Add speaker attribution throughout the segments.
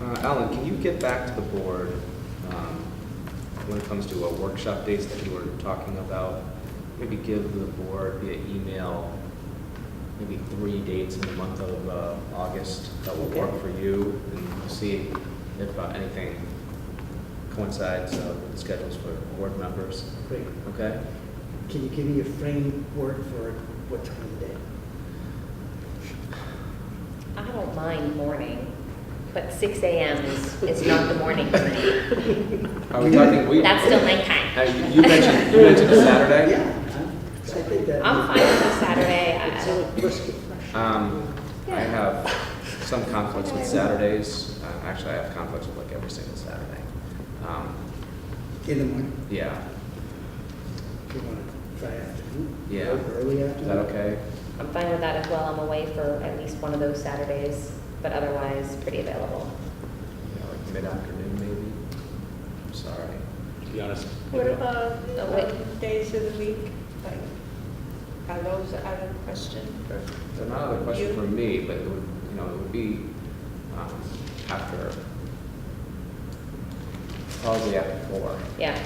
Speaker 1: Uh, Alan, can you get back to the board um, when it comes to uh, workshop dates that you were talking about? Maybe give the board via email, maybe three dates in the month of uh, August that will work for you, and see if uh, anything coincides uh, with the schedules for board members,
Speaker 2: Great.
Speaker 1: okay?
Speaker 2: Can you give me a framework for what time of day?
Speaker 3: I don't mind morning, but six AM is, is not the morning for me.
Speaker 1: Are we talking, we...
Speaker 3: That's still my
Speaker 1: Uh,
Speaker 3: time.
Speaker 1: You you mentioned, you mentioned a Saturday?
Speaker 2: Yeah, I I think that.
Speaker 3: I'm fine with a Saturday.
Speaker 2: It's
Speaker 3: I-
Speaker 2: a brisket fresh.
Speaker 1: Um, I have some conflicts with Saturdays. Uh, Actually, I have conflicts with like every single Saturday. Um,
Speaker 2: In the morning,
Speaker 1: Yeah,
Speaker 2: if you want to try afternoon.
Speaker 1: Yeah.
Speaker 2: or Early
Speaker 1: is that
Speaker 2: afternoon.
Speaker 1: okay?
Speaker 3: I'm fine with that as well. I'm away for at least one of those Saturdays, but otherwise pretty available.
Speaker 1: Yeah, like mid-afternoon maybe? I'm sorry.
Speaker 4: to be honest.
Speaker 5: What about
Speaker 3: Oh, wait.
Speaker 5: um, days of the week? Like, Are those out of question? for-
Speaker 1: So not a question for me, but it would, you know, it would be um, after, probably after four.
Speaker 3: Yeah,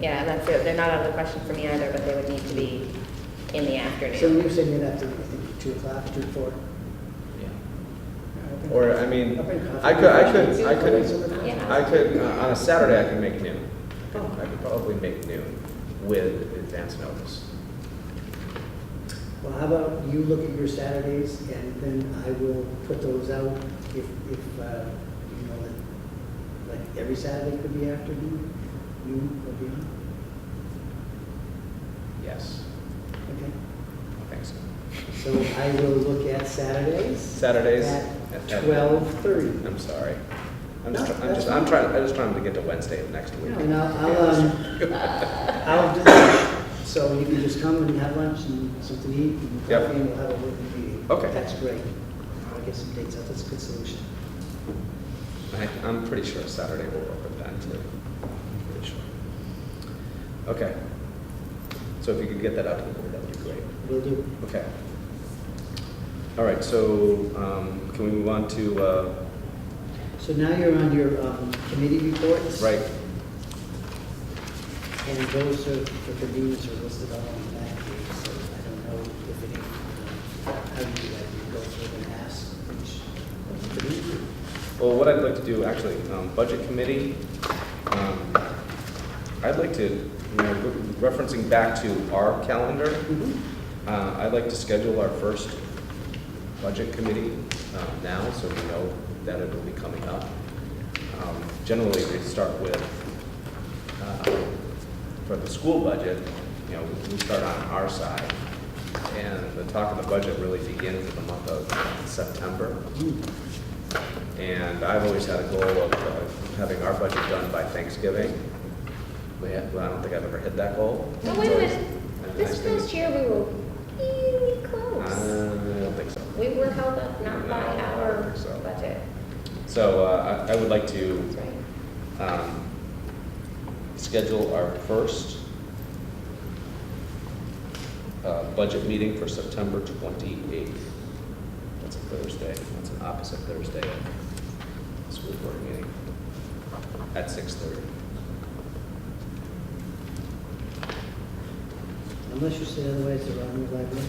Speaker 3: yeah, and that's it. They're not out of the question for me either, but they would need to be in the
Speaker 2: So
Speaker 3: afternoon.
Speaker 2: you're saying you'd have to, I think, two o'clock, two, four?
Speaker 1: Yeah.
Speaker 6: Or, I mean, I could, I could, I could,
Speaker 3: Yeah.
Speaker 6: I could, uh,
Speaker 1: On a Saturday, I can make noon. I could probably make noon with advance notice.
Speaker 2: Well, how about you look at your Saturdays and then I will put those out if, if, uh, you know, that- like every Saturday could be afternoon, noon or beyond.
Speaker 1: Yes,
Speaker 2: Okay,
Speaker 1: I think so.
Speaker 2: so I will look at Saturdays
Speaker 1: Saturdays?
Speaker 2: at
Speaker 1: at-
Speaker 2: twelve thirty.
Speaker 1: I'm sorry. I'm just,
Speaker 2: No,
Speaker 1: I'm
Speaker 2: that's
Speaker 1: just, I'm
Speaker 2: fine.
Speaker 1: trying, I just trying to get to Wednesday of next week.
Speaker 2: And I'll, I'll, um, I'll do that. So you can just come and have lunch and something to eat and
Speaker 1: Yep.
Speaker 2: coffee and we'll have a working meeting.
Speaker 1: Okay.
Speaker 2: That's great. I'll get some dates out. That's a good solution.
Speaker 1: I, I'm pretty sure Saturday will work with that too. I'm Pretty sure. Okay. So if you could get that out to the board, that would be great.
Speaker 2: Will do.
Speaker 1: Okay. All right, so, um, can we move on to, uh,
Speaker 2: So now you're on your, um, committee reports.
Speaker 1: right,
Speaker 2: And those are, for convenience, are listed all on that page, so I don't know if any, uh, how you do that, you go through and ask each. committee?
Speaker 1: Well, what I'd like to do, actually, um, Budget Committee, um, I'd like to, you know, re- referencing back to our calendar, uh, I'd like to schedule our first Budget Committee uh, now, so we know that it will be coming up. Um, Generally, they start with, uh, for the school budget, you know, we start on our side, and the talk of the budget really begins in the month of September. And I've always had a goal of uh, having our budget done by Thanksgiving. We ha- Well, I don't think I've ever hit that goal.
Speaker 3: But wait a minute,
Speaker 1: It's always-
Speaker 3: this past year we were really close.
Speaker 1: Uh, I don't think so.
Speaker 3: We were held up not by
Speaker 1: No, I don't
Speaker 3: our
Speaker 1: think so.
Speaker 3: budget,
Speaker 1: So uh, I I would like to
Speaker 3: that's right.
Speaker 1: um, schedule our first uh, budget meeting for September 28th. That's a Thursday, that's an opposite Thursday of the school board meeting at 6:30.
Speaker 2: Unless you say otherwise, they're on your library.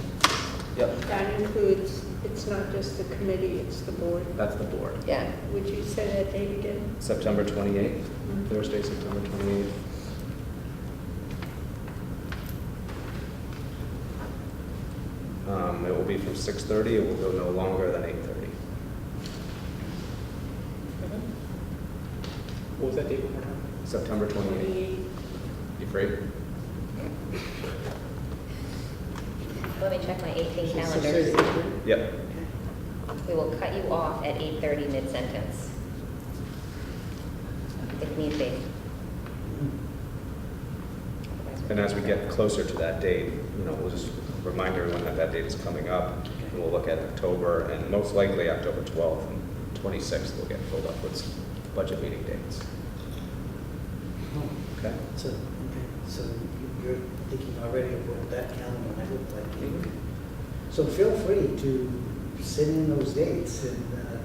Speaker 1: Yep,
Speaker 5: That includes, it's not just the committee, it's the board.
Speaker 1: that's the board.
Speaker 3: Yeah,
Speaker 5: Would you say that date again?
Speaker 1: September 28th, Thursday, September 28th. Um, It will be from 6:30, it will go no longer than 8:30.
Speaker 3: Mm-hmm.
Speaker 4: What was that date one more time?
Speaker 1: September 28th. You free?
Speaker 3: let me check my eighteen
Speaker 2: Six
Speaker 3: calendars.
Speaker 2: thirty.
Speaker 1: Yep.
Speaker 2: Okay.
Speaker 3: We will cut you off at 8:30 mid-sentence. If need be.
Speaker 1: And as we get closer to that date, you know, we'll just remind everyone that that date is coming up. And we'll look at October and most likely October 12th and 26th will get filled up with budget meeting dates.
Speaker 2: Oh.
Speaker 1: Okay?
Speaker 2: So, okay, so you- you're thinking already of what that calendar might look like.
Speaker 1: Mhm.
Speaker 2: So feel free to send in those dates and uh,